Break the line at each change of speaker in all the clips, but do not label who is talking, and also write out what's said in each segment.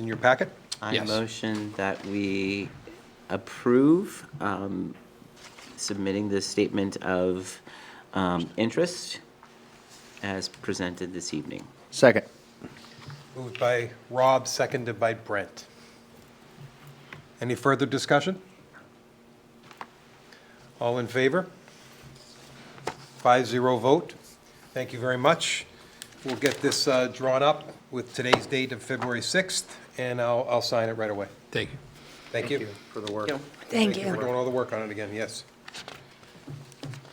in your packet.
I
Yes.
motion that we approve um, submitting the statement of um, interest as presented this evening.
Second.
Moved by Rob, seconded by Brent. Any further discussion? All in favor? Five zero vote. Thank you very much. We'll get this uh, drawn up with today's date of February 6th, and I'll, I'll sign it right away.
Thank you.
Thank you. For the work.
Thank
Thank you for
you.
doing all the work on it again, yes.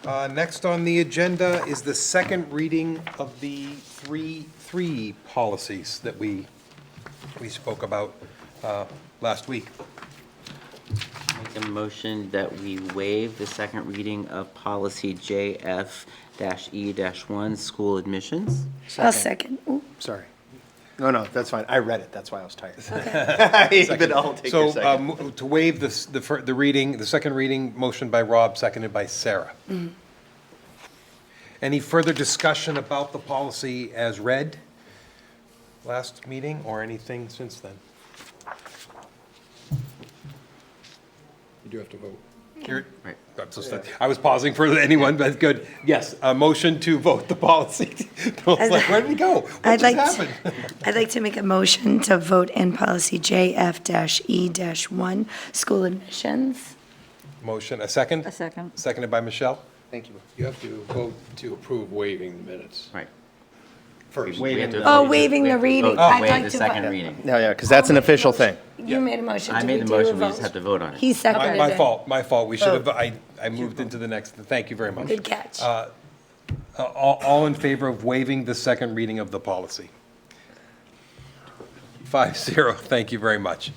Uh, Next on the agenda is the second reading of the three, three policies that we, we spoke about uh, last week.
Make a motion that we waive the second reading of policy JF-E-1, E school admissions.
I'll second. Ooh,
Sorry. No, no, that's fine. I read it. That's why I was tired.
Okay.
But I'll take your
So
second.
um, to waive this- the, fir- the reading, the second reading, motion by Rob, seconded by Sarah.
Mm.
Any further discussion about the policy as read last meeting or anything since then?
You do have to vote.
You're-
Right.
I'm so sorry. I was pausing for anyone, but good. Yes, a motion to vote the policy. I was like, where did we go? What
I'd
just
like,
happened?
to- I'd like to make a motion to vote in policy E JF-E-1, school admissions.
Motion, a second?
A second.
Seconded by Michelle?
Thank you.
You have to vote to approve waiving the minutes.
Right.
First.
We have to
Oh,
vote-
waiving the reading.
vote to
I'd
waive
like
the
to
second
vote.
reading.
No, yeah, because that's an official thing.
You made a motion.
I
Did
made the
do a
motion, we just
vote?
have to vote on it.
He
My
seconded
my
it.
fault, my fault. We should have, I, I moved into the next, thank you very much.
Good catch.
Uh, All, all in favor of waiving the second reading of the policy? Five zero, thank you very much.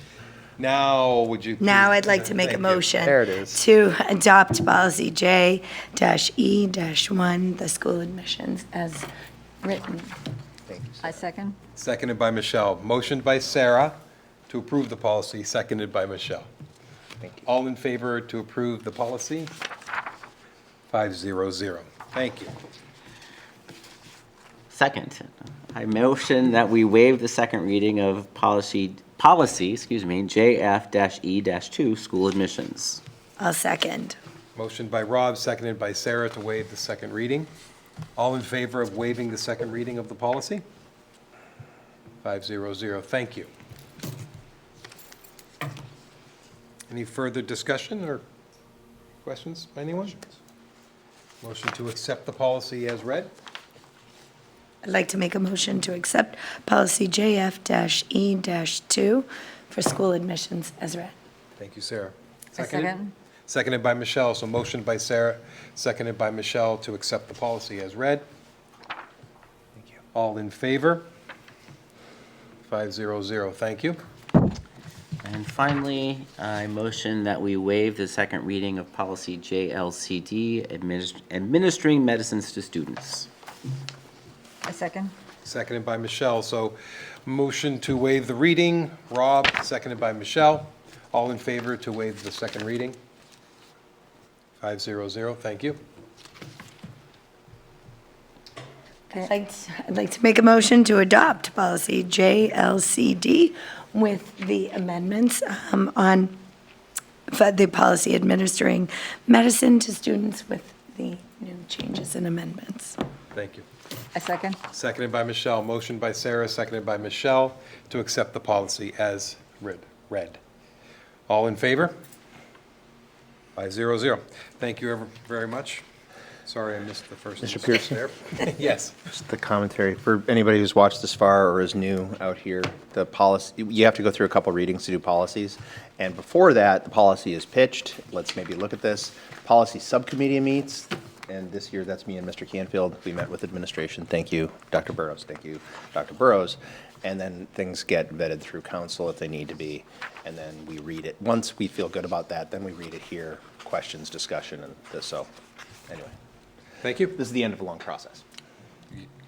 Now, would you? please-
Now I'd like to make a
Thank you.
motion.
There it is.
To adopt policy J-E-1, the school admissions as written.
I second.
Seconded by Michelle. Motion by Sarah to approve the policy, seconded by Michelle. All in favor to approve the policy? 500. Thank you.
Second, I motion that we waive the second reading of policy, policy, excuse me, JF-E-2, school admissions.
I'll second.
Motion by Rob, seconded by Sarah to waive the second reading. All in favor of waiving the second reading of the policy? 500. Thank you. Any further discussion or questions, by anyone? Motion to accept the policy as read?
I'd like to make a motion to accept policy JF-E-2 E for school admissions as read.
Thank you, Sarah.
I
Seconded?
second.
Seconded by Michelle, so motion by Sarah, seconded by Michelle to accept the policy as read. All in favor? Five zero zero, thank you.
And finally, I motion that we waive the second reading of policy JLCD, adminis- administering medicines to students.
I second.
Seconded by Michelle, so motion to waive the reading, Rob, seconded by Michelle. All in favor to waive the second reading? Five zero zero, thank you.
I'd like to- I'd like to make a motion to adopt policy JLCD with the amendments um, on for the policy administering medicine to students with the new changes and amendments.
Thank you.
I second.
Seconded by Michelle, motion by Sarah, seconded by Michelle to accept the policy as read. read. All in favor? Five zero zero. Thank you ever very much. Sorry I missed the first.
Mr. Pearson.
there. Yes.
Just the commentary for anybody who's watched this far or is new out here, the policy, you have to go through a couple readings to do policies. And before that, the policy is pitched. Let's maybe look at this. Policy Subcommittee meets, and this year, that's me and Mr. Canfield. We met with administration. Thank you, Dr. Burrows. Thank you, Dr. Burrows. And then things get vetted through council if they need to be, and then we read it. Once we feel good about that, then we read it here, questions, discussion, and this, so, anyway.
Thank you.
This is the end of a long process.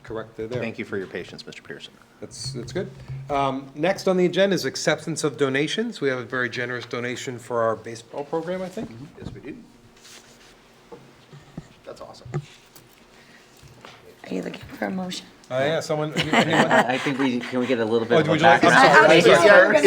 Correct there.
Thank you for your patience, Mr. Pearson.
That's, that's good. Um, Next on the agenda is acceptance of donations. We have a very generous donation for our baseball program, I think.
Yes, we do. That's awesome.
Are you looking for a motion?
Uh, yeah, someone, anyone?
I think we, can we get a little bit
Oh,
of a
would you like- I'm
background?
sorry, I'm
I- I-
sorry.
yeah, we're gonna